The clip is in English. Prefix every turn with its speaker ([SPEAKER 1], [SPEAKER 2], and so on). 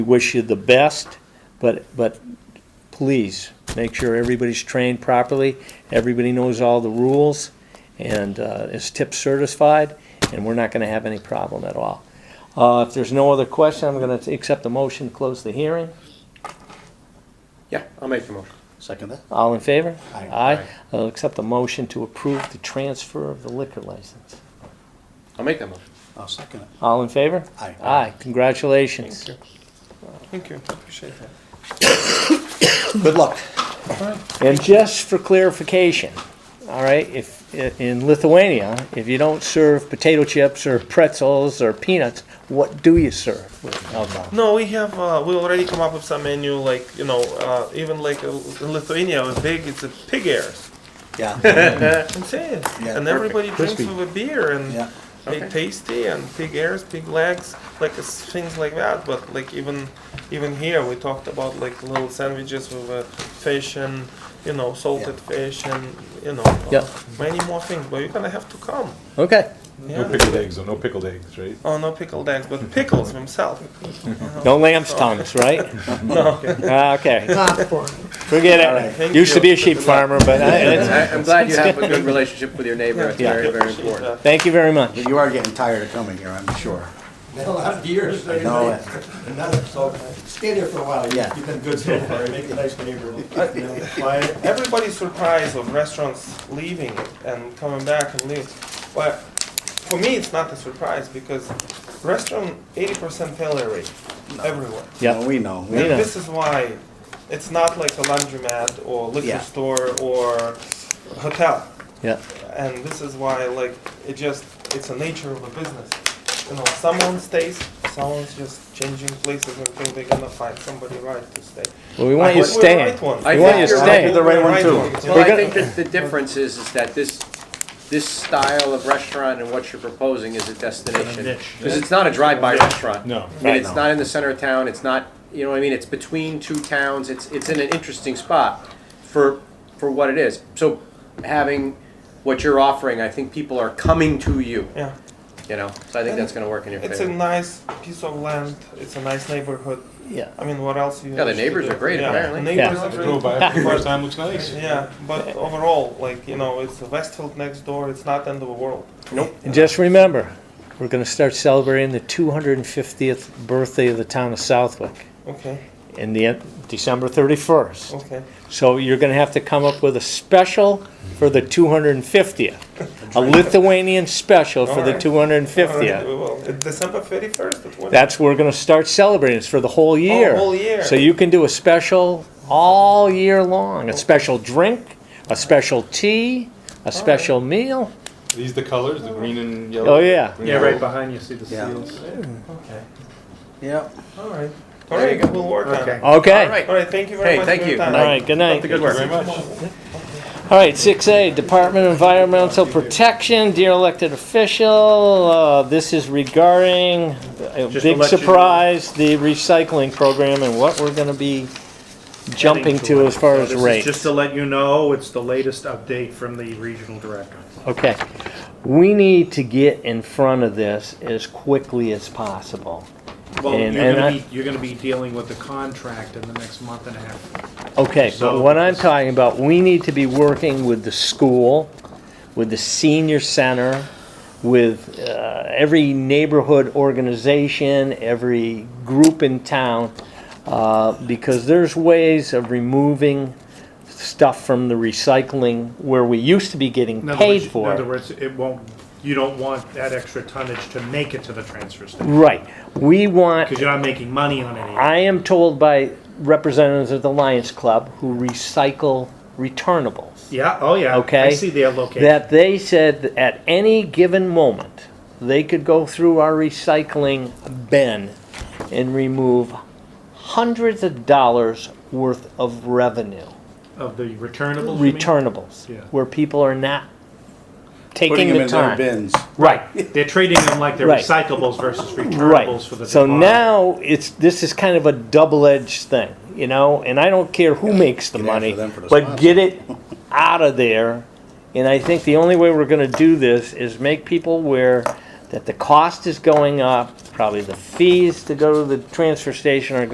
[SPEAKER 1] We wish you the best, but, but please, make sure everybody's trained properly, everybody knows all the rules, and uh, is tip certified, and we're not going to have any problem at all. Uh, If there's no other question, I'm going to accept the motion to close the hearing.
[SPEAKER 2] Yeah, I'll make the motion.
[SPEAKER 3] Second that?
[SPEAKER 1] All in favor?
[SPEAKER 3] Aye.
[SPEAKER 1] Aye. I'll accept the motion to approve the transfer of the liquor license.
[SPEAKER 2] I'll make that motion.
[SPEAKER 3] I'll second it.
[SPEAKER 1] All in favor?
[SPEAKER 3] Aye.
[SPEAKER 1] Aye, congratulations.
[SPEAKER 2] Thank you, appreciate that.
[SPEAKER 3] Good luck.
[SPEAKER 1] And just for clarification, all right, if, in Lithuania, if you don't serve potato chips or pretzels or peanuts, what do you serve with alcohol?
[SPEAKER 4] No, we have. Uh, we already come up with some menu, like you know, uh, even like uh, in Lithuania, was big. It's a pig ears.
[SPEAKER 3] Yeah,
[SPEAKER 4] I'm
[SPEAKER 3] Yeah,
[SPEAKER 4] saying, and
[SPEAKER 3] perfect.
[SPEAKER 4] everybody
[SPEAKER 1] Crispy.
[SPEAKER 4] drinks with a beer and
[SPEAKER 3] Yeah.
[SPEAKER 4] they tasty and pig ears, pig legs, like it's things like that. But like even even here, we talked about like little sandwiches with uh, fish and you know salted fish and you know uh,
[SPEAKER 1] Yeah.
[SPEAKER 4] many more things. But you're gonna have to come.
[SPEAKER 1] Okay,
[SPEAKER 5] No
[SPEAKER 4] Yeah.
[SPEAKER 5] pickled eggs, though. No pickled eggs, right?
[SPEAKER 4] Oh no, pickled eggs, but pickles himself.
[SPEAKER 1] no lamb's tongues, right?
[SPEAKER 4] No.
[SPEAKER 1] Ah, Okay, forget it.
[SPEAKER 4] thank
[SPEAKER 1] Used to
[SPEAKER 4] you.
[SPEAKER 1] be a sheep farmer, but I- it's-
[SPEAKER 2] I- I'm glad you have a good relationship with your neighbor, it's
[SPEAKER 4] Yeah,
[SPEAKER 2] very, very
[SPEAKER 4] appreciate
[SPEAKER 2] important.
[SPEAKER 4] that.
[SPEAKER 1] thank you very much.
[SPEAKER 3] you are getting tired of coming here, I'm sure.
[SPEAKER 6] Been a lot of years, so
[SPEAKER 3] know
[SPEAKER 6] you're- another, so stay there for a while,
[SPEAKER 3] Yeah. Uh,
[SPEAKER 6] yeah, you've been good so far, you make a nice neighbor, you know, quiet.
[SPEAKER 4] everybody's surprised of restaurants leaving and coming back and leaving. But for me, it's not a surprise because restaurant 80% failure rate everywhere.
[SPEAKER 1] Yeah,
[SPEAKER 3] No, We know. We
[SPEAKER 1] Yeah.
[SPEAKER 4] And
[SPEAKER 1] know.
[SPEAKER 4] this is why it's not like a laundromat or liquor
[SPEAKER 3] Yeah.
[SPEAKER 4] store or hotel.
[SPEAKER 1] yeah,
[SPEAKER 4] And this is why, like, it just, it's a nature of a business. You know, someone stays, someone's just changing places until they're gonna find somebody right to stay.
[SPEAKER 1] well, we want you
[SPEAKER 4] We're the
[SPEAKER 1] staying.
[SPEAKER 4] right ones.
[SPEAKER 2] I
[SPEAKER 1] We want you
[SPEAKER 2] think you're-
[SPEAKER 1] staying.
[SPEAKER 3] the right one, too.
[SPEAKER 4] ones, yeah.
[SPEAKER 2] Well, I
[SPEAKER 1] We're
[SPEAKER 2] think that the difference is, is that this, this style of restaurant and what you're proposing is a destination. Because it's not a drive-by restaurant.
[SPEAKER 5] No.
[SPEAKER 2] I mean, it's not in the center of town, it's not, you know what I mean, it's between two towns, it's, it's in an interesting spot for, for what it is. So having what you're offering, I think people are coming to you,
[SPEAKER 4] Yeah.
[SPEAKER 2] you know, so I think that's gonna work in your
[SPEAKER 4] It's a
[SPEAKER 2] favor.
[SPEAKER 4] nice piece of land. It's a nice neighborhood.
[SPEAKER 1] Yeah.
[SPEAKER 4] I mean, what else? You
[SPEAKER 2] Yeah, the
[SPEAKER 4] should
[SPEAKER 2] neighbors
[SPEAKER 4] do?
[SPEAKER 2] are great,
[SPEAKER 4] Yeah,
[SPEAKER 2] apparently.
[SPEAKER 4] Neighbors
[SPEAKER 1] Yeah.
[SPEAKER 4] are
[SPEAKER 5] Go
[SPEAKER 4] great.
[SPEAKER 5] by it for the first time. Looks nice.
[SPEAKER 4] Yeah, but overall, like you know, it's Westfield next door. It's not end of the world.
[SPEAKER 2] Nope.
[SPEAKER 1] And Just remember, we're gonna start celebrating the 250th birthday of the town of Southwick
[SPEAKER 4] Okay,
[SPEAKER 1] in the, December 31st.
[SPEAKER 4] okay.
[SPEAKER 1] So you're gonna have to come up with a special for the 250th. A Lithuanian special for the
[SPEAKER 4] Alright. Alright,
[SPEAKER 1] 250th.
[SPEAKER 4] we will. Uh, December thirty first. That
[SPEAKER 1] That's, we're gonna start celebrating, it's for the whole year.
[SPEAKER 4] whole year.
[SPEAKER 1] So you can do a special all year long, a special drink, a special tea, a special meal.
[SPEAKER 5] Are these the colors, the green and yellow.
[SPEAKER 1] Oh, yeah.
[SPEAKER 5] Green and gold?
[SPEAKER 2] behind you, see the
[SPEAKER 3] Yeah. seals.
[SPEAKER 4] Okay.
[SPEAKER 3] Yeah.
[SPEAKER 4] All right. All right. We'll work on it.
[SPEAKER 1] Okay.
[SPEAKER 2] All right.
[SPEAKER 4] All right. Thank you very
[SPEAKER 2] Hey,
[SPEAKER 4] much.
[SPEAKER 2] thank
[SPEAKER 4] for your
[SPEAKER 2] you.
[SPEAKER 4] time.
[SPEAKER 1] All right, good night.
[SPEAKER 5] Thank you very much.
[SPEAKER 1] All right, six A, Department of Environmental Protection, dear elected official, uh, this is regarding, a big surprise, the recycling program and what we're gonna be jumping to as far as
[SPEAKER 7] This is Just
[SPEAKER 1] rates.
[SPEAKER 7] to let you know, it's the latest update from the regional director.
[SPEAKER 1] Okay, we need to get in front of this as quickly as possible.
[SPEAKER 7] Well, you're
[SPEAKER 1] And- and I-
[SPEAKER 7] gonna be, you're gonna be dealing with the contract in the next month and a half.
[SPEAKER 1] Okay, but
[SPEAKER 7] So-
[SPEAKER 1] what I'm talking about, we need to be working with the school, with the senior center, with uh, every neighborhood organization, every group in town, uh, because there's ways of removing stuff from the recycling where we used to be getting
[SPEAKER 7] In other
[SPEAKER 1] paid
[SPEAKER 7] words-
[SPEAKER 1] for.
[SPEAKER 7] In
[SPEAKER 1] it.
[SPEAKER 7] other words, it won't, you don't want that extra tonnage to make it to the transfer station,
[SPEAKER 1] Right, we want,
[SPEAKER 7] because you're not making money on any of it.
[SPEAKER 1] I am told by representatives of the Lions Club who recycle returnables.
[SPEAKER 7] Yeah, oh yeah.
[SPEAKER 1] Okay.
[SPEAKER 7] I see their location.
[SPEAKER 1] that they said that at any given moment, they could go through our recycling bin and remove hundreds of dollars worth of revenue,
[SPEAKER 7] Of the returnables, you mean?
[SPEAKER 1] returnables,
[SPEAKER 7] Yeah.
[SPEAKER 1] where people are not
[SPEAKER 3] Putting
[SPEAKER 1] taking
[SPEAKER 3] them
[SPEAKER 1] the
[SPEAKER 3] in their
[SPEAKER 1] time.
[SPEAKER 3] bins.
[SPEAKER 1] Right,
[SPEAKER 7] They're trading them like they're
[SPEAKER 1] Right.
[SPEAKER 7] recyclables versus
[SPEAKER 1] right.
[SPEAKER 7] returnables for the.
[SPEAKER 1] So
[SPEAKER 7] department.
[SPEAKER 1] now it's, this is kind of a double-edged thing, you know, and I don't care who makes the
[SPEAKER 3] Get after
[SPEAKER 1] money,
[SPEAKER 3] them for the
[SPEAKER 1] but
[SPEAKER 3] sponsor.
[SPEAKER 1] get it out of there. And I think the only way we're gonna do this is make people aware that the cost is going up, probably the fees to go to the transfer station are